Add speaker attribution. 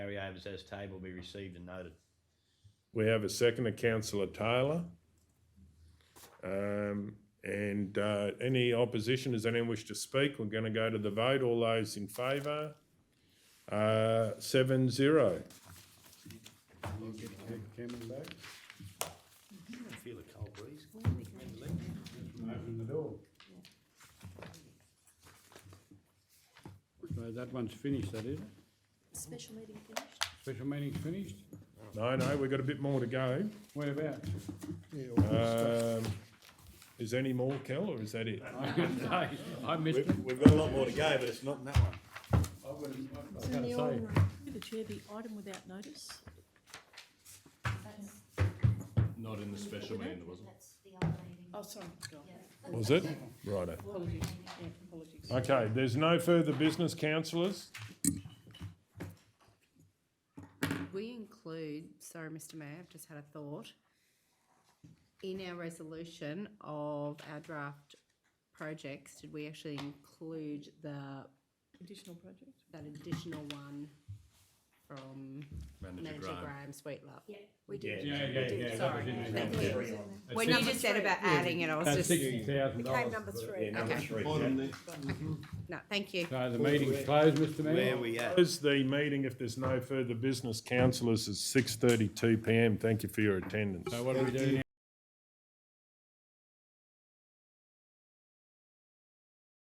Speaker 1: items as table be received and noted.
Speaker 2: We have a second of councillor Taylor. Um, and, uh, any opposition, does anyone wish to speak? We're gonna go to the vote, all those in favour? Uh, seven zero.
Speaker 3: You get Cam- Cameron back?
Speaker 1: Feel the cold breeze.
Speaker 3: Open the door. So that one's finished, that is?
Speaker 4: Special meeting finished?
Speaker 3: Special meeting's finished?
Speaker 2: No, no, we've got a bit more to go.
Speaker 3: Whereabouts?
Speaker 2: Um, is any more, Kel, or is that it?
Speaker 3: I couldn't say, I missed it.
Speaker 5: We've got a lot more to go, but it's not in that one.
Speaker 3: I wouldn't, I
Speaker 4: It's in
Speaker 3: can't
Speaker 4: the
Speaker 3: say.
Speaker 4: ordinary. Could the chair be item without notice?
Speaker 6: That's,
Speaker 7: Not in the special meeting, there wasn't.
Speaker 6: that's the old meeting,
Speaker 4: Oh, sorry,
Speaker 2: Was it? Righto.
Speaker 4: apologies, yeah, apologies.
Speaker 2: Okay, there's no further business, councillors?
Speaker 8: We include, sorry, Mr Mayor, I've just had a thought, in our resolution of our draft projects, did we actually include the,
Speaker 4: Additional project?
Speaker 8: that additional one from
Speaker 7: Manager
Speaker 8: Manager
Speaker 7: Graham.
Speaker 8: Graham Sweetlove?
Speaker 6: yeah.
Speaker 8: We did.
Speaker 3: Yeah, yeah, yeah. that
Speaker 8: Sorry.
Speaker 3: was in there.
Speaker 8: Thank you. When you just said about adding it, I was
Speaker 3: That's
Speaker 8: just,
Speaker 3: sixty thousand
Speaker 4: Became
Speaker 3: dollars.
Speaker 4: number
Speaker 5: Yeah,
Speaker 4: three.
Speaker 5: number
Speaker 8: Okay.
Speaker 5: three.
Speaker 8: no, thank you.
Speaker 3: So the meeting's closed, Mr
Speaker 1: Where
Speaker 3: Mayor?
Speaker 1: we at?
Speaker 2: Close the meeting if there's no further business, councillors, at six thirty-two PM. Thank you for your attendance.
Speaker 3: So what do we do now?